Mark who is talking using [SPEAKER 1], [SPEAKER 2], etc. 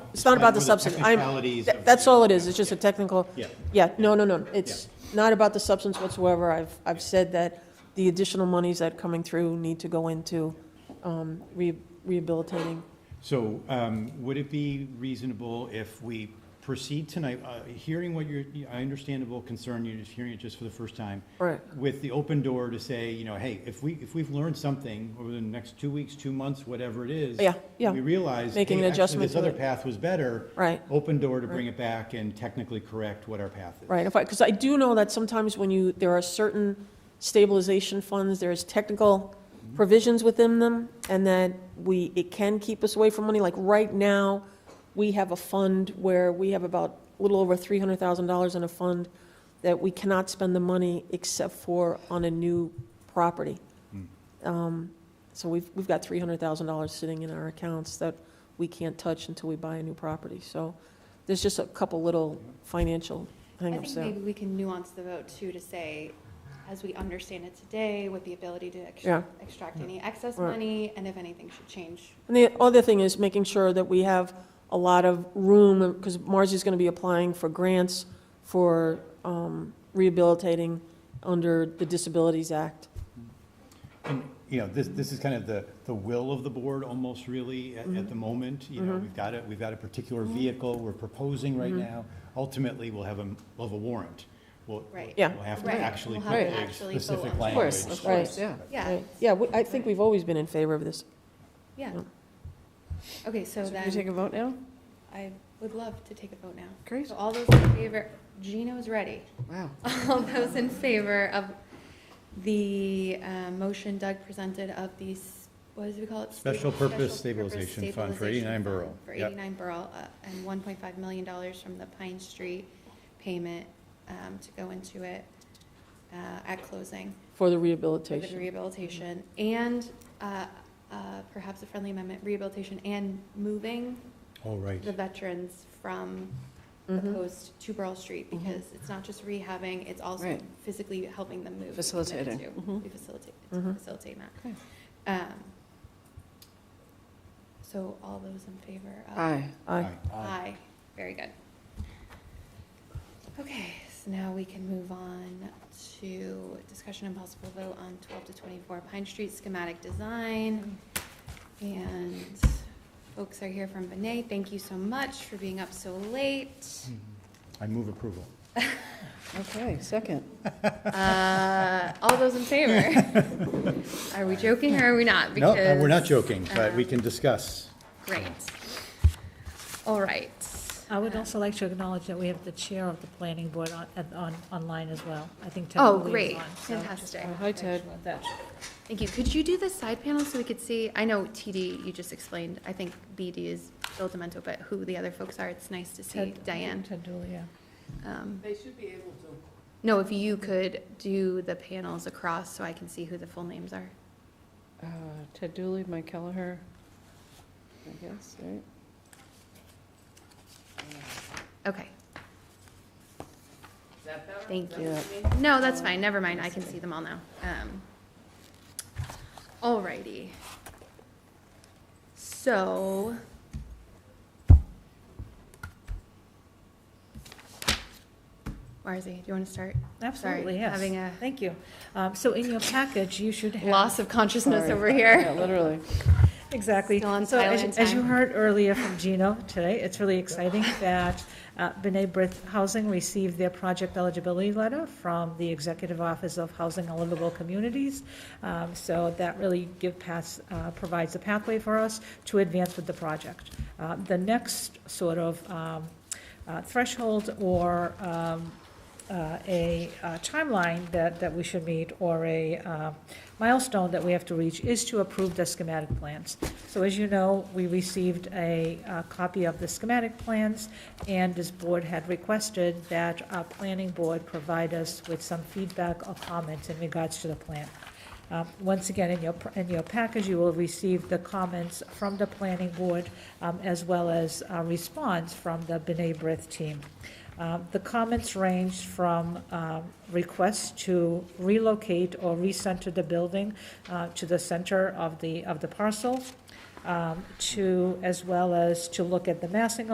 [SPEAKER 1] It's not about the
[SPEAKER 2] With
[SPEAKER 1] substance. I'm-
[SPEAKER 2] technicalities
[SPEAKER 1] tha-
[SPEAKER 2] of-
[SPEAKER 1] That's all it is, it's just a technical.
[SPEAKER 2] Yeah.
[SPEAKER 1] Yeah, no, no, no, it's not about the substance whatsoever. I've, I've said that the additional monies that are coming through need to go into um, re- rehabilitating.
[SPEAKER 2] So um, would it be reasonable if we proceed tonight, uh, hearing what your, I understandable concern, you're just hearing it just for the first time.
[SPEAKER 1] Right.
[SPEAKER 2] With the open door to say, you know, hey, if we, if we've learned something over the next two weeks, two months, whatever it is.
[SPEAKER 1] Yeah, yeah.
[SPEAKER 2] We realize, hey,
[SPEAKER 1] Making an
[SPEAKER 2] actually,
[SPEAKER 1] adjustment
[SPEAKER 2] this
[SPEAKER 1] to
[SPEAKER 2] other
[SPEAKER 1] it.
[SPEAKER 2] path was better.
[SPEAKER 1] Right.
[SPEAKER 2] Open door to bring it back and technically correct what our path is.
[SPEAKER 1] Right, if I, because I do know that sometimes when you, there are certain stabilization funds, there's technical provisions within them, and that we, it can keep us away from money. Like, right now, we have a fund where we have about, a little over three hundred thousand dollars in a fund that we cannot spend the money except for on a new property. Um, So we've, we've got three hundred thousand dollars sitting in our accounts that we can't touch until we buy a new property. So there's just a couple little financial
[SPEAKER 3] I
[SPEAKER 1] hangups
[SPEAKER 3] think
[SPEAKER 1] there.
[SPEAKER 3] maybe we can nuance the vote too to say, as we understand it today, with the ability to ex-
[SPEAKER 1] Yeah.
[SPEAKER 3] extract any excess
[SPEAKER 1] Right.
[SPEAKER 3] money, and if anything should change.
[SPEAKER 1] And the other thing is making sure that we have a lot of room, because Marzi's going to be applying for grants for um, rehabilitating under the Disabilities Act.
[SPEAKER 2] And, you know, this, this is kind of the, the will of the board almost really at, at the moment. You know, we've got it, we've got a particular vehicle we're proposing right now. Ultimately, we'll have a, we'll have a warrant. We'll,
[SPEAKER 3] Right.
[SPEAKER 1] Yeah.
[SPEAKER 2] we'll have to
[SPEAKER 3] Right.
[SPEAKER 2] actually
[SPEAKER 3] We'll
[SPEAKER 2] put
[SPEAKER 3] have to
[SPEAKER 2] the
[SPEAKER 3] actually vote
[SPEAKER 2] specific
[SPEAKER 3] on it.
[SPEAKER 2] language.
[SPEAKER 3] Of course,
[SPEAKER 1] of course,
[SPEAKER 4] yeah.
[SPEAKER 3] Yeah,
[SPEAKER 1] Yeah, we- I think we've always been in favor of this.
[SPEAKER 3] yeah.
[SPEAKER 1] Yeah.
[SPEAKER 3] Okay, so
[SPEAKER 4] Should we take
[SPEAKER 3] then,
[SPEAKER 4] a vote now?
[SPEAKER 3] I would love to take a vote now.
[SPEAKER 4] Great.
[SPEAKER 3] So all those in favor, Gino's ready.
[SPEAKER 4] Wow.
[SPEAKER 3] All those in favor of the uh, motion Doug presented of the, s- what does we call it?
[SPEAKER 2] Special
[SPEAKER 3] Stable-
[SPEAKER 2] purpose
[SPEAKER 3] special purpose
[SPEAKER 2] stabilization fund for 89
[SPEAKER 3] stabilization
[SPEAKER 2] Borough.
[SPEAKER 3] fund For
[SPEAKER 2] Yep.
[SPEAKER 3] 89 Borough, uh, and 1.5 million dollars from the Pine Street payment um, to go into it uh, at closing
[SPEAKER 1] For the
[SPEAKER 3] for the
[SPEAKER 1] rehabilitation.
[SPEAKER 3] rehabilitation, and uh, uh, perhaps a friendly amendment, rehabilitation and moving
[SPEAKER 2] Oh, right.
[SPEAKER 3] the veterans from the
[SPEAKER 4] Mm-hmm.
[SPEAKER 1] Mm-hmm.
[SPEAKER 3] coast to Burl Street, because it's not just rehabbing, it's also
[SPEAKER 4] Right.
[SPEAKER 3] physically helping them move. if we committed
[SPEAKER 4] Facilitating.
[SPEAKER 3] to.
[SPEAKER 4] Mhm.
[SPEAKER 3] We facilitate,
[SPEAKER 1] Mhm.
[SPEAKER 3] facilitate that.
[SPEAKER 4] Okay.
[SPEAKER 3] Um, So all those in favor of?
[SPEAKER 4] Aye.
[SPEAKER 1] Aye.
[SPEAKER 3] Aye, very good. Okay, so now we can move on to discussion and possible vote on twelve to twenty-four Pine Street schematic design. And folks are here from Benay, thank you so much for being up so late.
[SPEAKER 2] I move approval.
[SPEAKER 4] Okay, second.
[SPEAKER 3] Uh, all those in favor? Are we joking or are we not?
[SPEAKER 2] No, uh, we're not
[SPEAKER 3] Because-
[SPEAKER 2] joking, but we can discuss.
[SPEAKER 3] Great. All right.
[SPEAKER 5] I would also like to acknowledge that we have the chair of the planning board on, at- on, online as well. I think Ted
[SPEAKER 3] Oh,
[SPEAKER 5] Lee is
[SPEAKER 3] great,
[SPEAKER 5] on, so just
[SPEAKER 3] fantastic.
[SPEAKER 4] Oh, Hi, Ted.
[SPEAKER 5] want that.
[SPEAKER 3] Thank you. Could you do the side panel so we could see? I know TD, you just explained, I think BD is Bill Demento, but who the other folks are, it's nice to see
[SPEAKER 5] Ted-
[SPEAKER 3] Diane.
[SPEAKER 5] Ted Dooley, yeah.
[SPEAKER 3] Um,
[SPEAKER 6] They should be able to.
[SPEAKER 3] No, if you could do the panels across so I can see who the full names are.
[SPEAKER 4] Uh, Ted Dooley, Mike Kelleher, I guess, right?
[SPEAKER 3] Okay.
[SPEAKER 6] Is that better?
[SPEAKER 3] Thank
[SPEAKER 4] you.
[SPEAKER 3] No, that's fine, never mind, I can see them all now. Um, Alrighty. So. Marzie, do you want to start?
[SPEAKER 5] Absolutely, yes.
[SPEAKER 3] having a-
[SPEAKER 5] Thank you. Um, So in your package, you should have.
[SPEAKER 3] Loss of consciousness
[SPEAKER 4] Sorry.
[SPEAKER 3] over
[SPEAKER 4] Yeah,
[SPEAKER 3] here.
[SPEAKER 4] literally.
[SPEAKER 5] Exactly.
[SPEAKER 3] Still on
[SPEAKER 5] So as-
[SPEAKER 3] Thailand
[SPEAKER 5] As you
[SPEAKER 3] time.
[SPEAKER 5] heard earlier from Gino today, it's really exciting that uh, B'nai B'rith Housing received their project eligibility letter from the Executive Office of Housing and Livable Communities. Um, So that really give pass, uh, provides a pathway for us to advance with the project. Uh, The next sort of um, uh, threshold or um, uh, a uh, timeline that, that we should meet or a uh, milestone that we have to reach is to approve the schematic plans. So as you know, we received a uh, copy of the schematic plans, and this board had requested that our planning board provide us with some feedback or comments in regards to the plan. Um, Once again, in your, in your package, you will receive the comments from the planning board um, as well as a response from the B'nai B'rith team. Um, The comments ranged from um, requests to relocate or recenter the building uh, to the center of the, of the parcel, um, to, as well as to look at the massing